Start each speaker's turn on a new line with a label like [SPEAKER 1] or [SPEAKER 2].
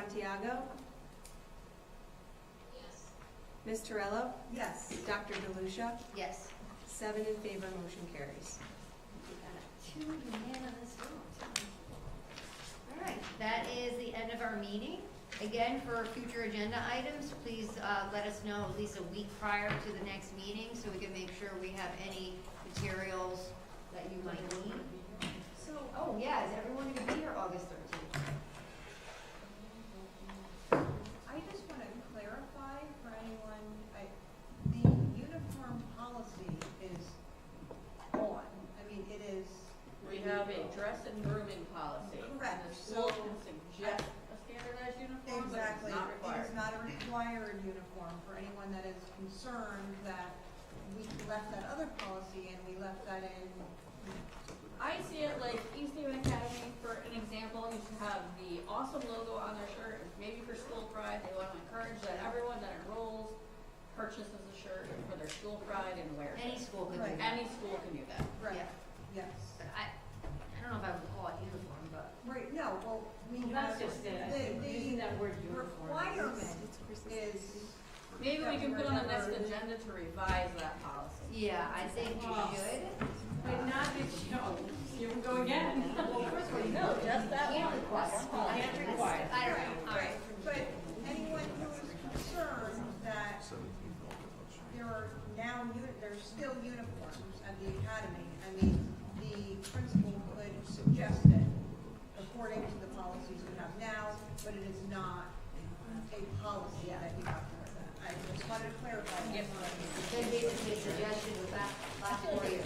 [SPEAKER 1] Santiago? Yes. Ms. Terrell?
[SPEAKER 2] Yes.
[SPEAKER 1] Dr. DeLucia?
[SPEAKER 3] Yes.
[SPEAKER 1] Seven in favor, motion carries.
[SPEAKER 3] We got Two unanimous votes. All right, that is the end of our meeting. Again, for future agenda items, please uh, let us know at least a week prior to the next meeting so we can make sure we have any materials that you might need. So, oh yeah, is everyone gonna be here August thirteenth?
[SPEAKER 2] I just want to clarify for anyone, I, the uniform policy is on. I mean, it is.
[SPEAKER 4] We have a dress and grooming policy.
[SPEAKER 2] Correct,
[SPEAKER 4] And The
[SPEAKER 2] so-
[SPEAKER 4] school can suggest a standardized uniform, but
[SPEAKER 2] Exactly.
[SPEAKER 4] it's not
[SPEAKER 2] It
[SPEAKER 4] required.
[SPEAKER 2] is not a required uniform for anyone that is concerned that we left that other policy and we left that in.
[SPEAKER 4] I see it like East Haven Academy, for an example, used to have the awesome logo on their shirt. Maybe for school pride, they want to encourage that everyone that enrolls purchases a shirt for their school pride and wears
[SPEAKER 3] Any
[SPEAKER 4] it.
[SPEAKER 3] school could do
[SPEAKER 2] Right.
[SPEAKER 3] that.
[SPEAKER 4] Any school can do that.
[SPEAKER 2] Right,
[SPEAKER 3] Yeah.
[SPEAKER 2] yes.
[SPEAKER 3] But I, I don't know if I would call it uniform, but
[SPEAKER 2] Right, no, well, we
[SPEAKER 5] That's
[SPEAKER 2] have.
[SPEAKER 5] just it, I think,
[SPEAKER 2] the- the
[SPEAKER 5] using that word uniform.
[SPEAKER 2] Requirement is.
[SPEAKER 4] Maybe we can put on the next
[SPEAKER 2] Definitely.
[SPEAKER 4] agenda to revise that policy.
[SPEAKER 3] yeah, I think you
[SPEAKER 5] Well,
[SPEAKER 3] should.
[SPEAKER 5] But not that, you know, here we go again.
[SPEAKER 3] Well, first of all, you
[SPEAKER 4] No, just that
[SPEAKER 3] can't
[SPEAKER 4] one.
[SPEAKER 3] require.
[SPEAKER 5] Can't require.
[SPEAKER 3] I don't know, all right.
[SPEAKER 2] But anyone who is concerned that there are now, uni- there's still uniforms at the academy, I mean, the principal could suggest it according to the policies we have now, but it is not a policy that you have to, I just wanted to clarify.
[SPEAKER 4] Yes.
[SPEAKER 3] Then basically a suggestion with that last four years.